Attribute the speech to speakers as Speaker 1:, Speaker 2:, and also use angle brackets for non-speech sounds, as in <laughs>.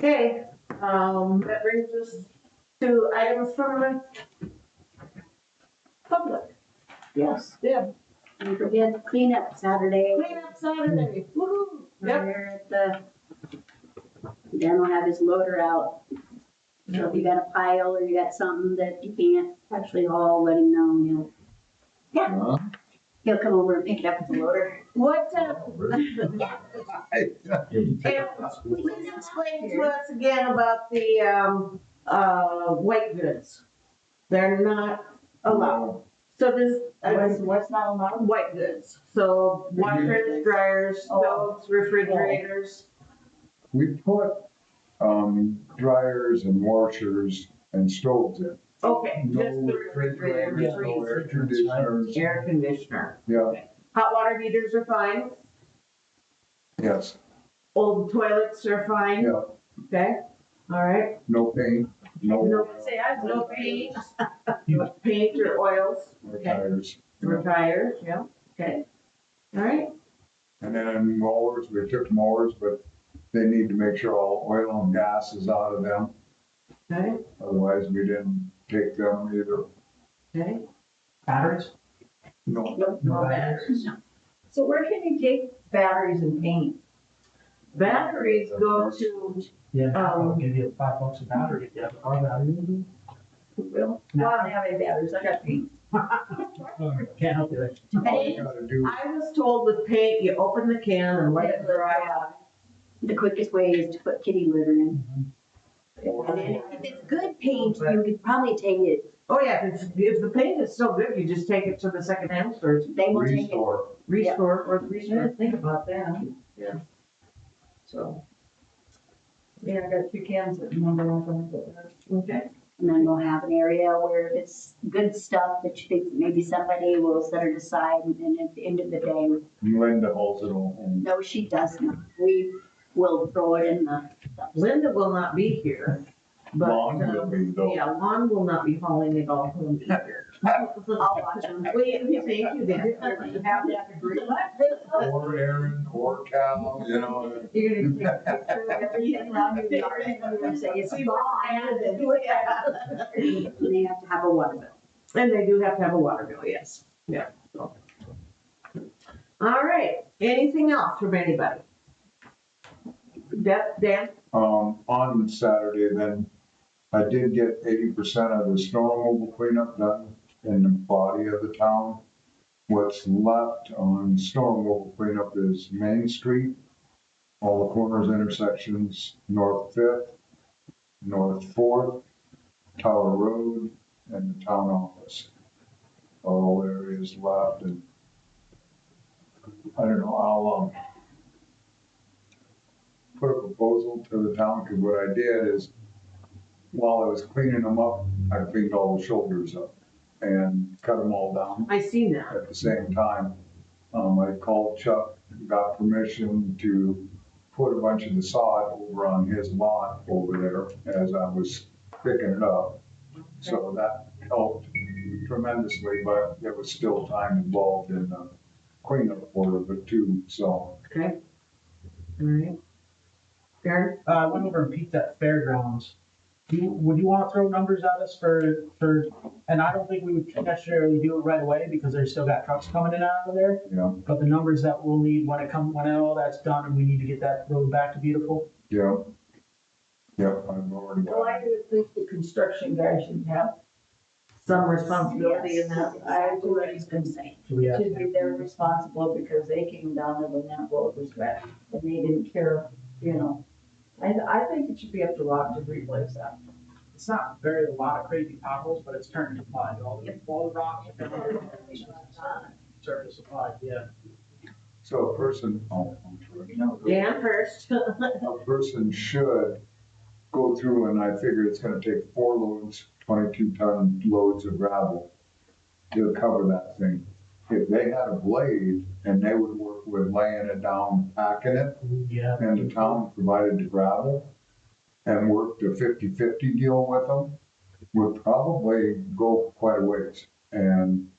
Speaker 1: Okay, um, that brings us to items from the public.
Speaker 2: Yes,
Speaker 1: Yeah,
Speaker 2: we did cleanup Saturday.
Speaker 1: cleanup Saturday, woo
Speaker 2: Over there at the, Dan will have his loader out. So if you got a pile or you got something that you can't actually haul, let him know and he'll, he'll come over and pick it up with the loader.
Speaker 1: What, uh,
Speaker 3: Yeah.
Speaker 1: please explain to us again about the, um, uh, white goods. They're not
Speaker 3: uh,
Speaker 1: allowed. So this, uh,
Speaker 4: What's, what's not allowed?
Speaker 1: white goods, so washers, dryers, stoves, refrigerators.
Speaker 3: We put, um, dryers and washers and stoves in.
Speaker 1: Okay, just
Speaker 3: No
Speaker 1: the
Speaker 3: refrigerators, no air
Speaker 1: refrigerators,
Speaker 3: conditioners.
Speaker 4: Air conditioner.
Speaker 3: Yeah,
Speaker 1: hot water heaters are fine,
Speaker 3: yes,
Speaker 1: old toilets are fine,
Speaker 3: yeah,
Speaker 1: okay? All right,
Speaker 3: no paint,
Speaker 1: <laughs>
Speaker 3: no
Speaker 1: no, say I, no paint, paint or oils
Speaker 3: uh, tires. you
Speaker 1: or
Speaker 3: know.
Speaker 1: tires, yeah, okay. All right,
Speaker 3: And then mowers, we took mowers, but they need to make sure all oil and gas is out of them,
Speaker 1: okay,
Speaker 3: otherwise we didn't take them either.
Speaker 1: okay.
Speaker 4: Batteries?
Speaker 3: No,
Speaker 4: Oh,
Speaker 1: No batteries.
Speaker 4: So where can you take batteries and paint?
Speaker 1: Batteries go to,
Speaker 5: Yeah,
Speaker 1: Um,
Speaker 5: I'll give you five bucks a battery if you have a car battery.
Speaker 4: Well, I don't have any batteries, I got paint.
Speaker 5: <laughs> Can't help you there.
Speaker 3: all you gotta do,
Speaker 1: I was told with paint, you open the can and let it dry out.
Speaker 2: The quickest way is to put kitty litter in.
Speaker 3: or-
Speaker 2: And then if it's good paint, you could probably take it,
Speaker 1: Oh, yeah, if, it's- if the paint is still good, you just take it to the second hand store,
Speaker 2: they will take it.
Speaker 3: restore.
Speaker 1: restore or restore.
Speaker 4: think about that. Yeah. So. Yeah, I got two cans that number one.
Speaker 1: Okay.
Speaker 2: And then we'll have an area where if it's good stuff that you think maybe somebody will set it aside and then at the end of the day,
Speaker 3: Linda holds it all. and
Speaker 2: no, she doesn't. We will throw it in the,
Speaker 1: Linda will not be here, but,
Speaker 3: Long will
Speaker 1: um,
Speaker 3: be though.
Speaker 1: yeah, Lon will not be hauling it all home either.
Speaker 2: I'll watch them.
Speaker 1: Wait, thank you, Dan.
Speaker 4: Have that degree.
Speaker 3: Or Aaron, or Cal, you know.
Speaker 4: You're gonna take a picture of everything around your yard and you're gonna say it's
Speaker 1: <laughs>
Speaker 4: gone.
Speaker 2: And they have to have a water bill.
Speaker 1: And they do have to have a water bill, yes, yeah. All right, anything else from anybody? Deb, Dan,
Speaker 3: Um, on Saturday then, I did get eighty percent of the snow removal cleanup done in the body of the town. What's left on snow removal cleanup is Main Street, all the corners, intersections, North Fifth, North Fourth, Tower Road, and the town office. All areas left and I don't know, I'll, um, put a proposal to the town, because what I did is, while I was cleaning them up, I cleaned all the shoulders up and cut them all down
Speaker 1: I seen that.
Speaker 3: at the same time. Um, I called Chuck, got permission to put a bunch of the sod over on his lot over there as I was picking it up. So that helped tremendously, but there was still time involved in the cleanup order, but too, so.
Speaker 1: Okay. All right. Karen?
Speaker 5: Uh, I went over and peeked at fairgrounds. Do you, would you wanna throw numbers at us for, for, and I don't think we would necessarily do it right away because there's still got trucks coming in and out of there.
Speaker 3: Yeah,
Speaker 5: But the numbers that we'll need when it come, when all that's done and we need to get that road back to beautiful.
Speaker 3: yeah. Yeah, I've already
Speaker 4: Well,
Speaker 3: got
Speaker 4: I would think the construction guy should have,
Speaker 1: Some responsibility in that.
Speaker 2: Yes, That's what he's been saying.
Speaker 5: Do we have?
Speaker 4: should be they're responsible because they came down there when that road was wet and they didn't care, you know. I, I think it should be up to Rob to replace that.
Speaker 5: It's not very, a lot of crazy potholes, but it's turning to mud. All the, all the rocks. are turning to Service supply, yeah.
Speaker 3: So a person, oh, I'm sorry.
Speaker 1: Dan first.
Speaker 3: a person should go through and I figure it's gonna take four loads, twenty-two ton loads of gravel to cover that thing. If they had a blade and they would work with laying it down, packing it,
Speaker 5: Yeah.
Speaker 3: and the town provided the gravel and worked a 50-50 deal with them, would probably go quite a ways. And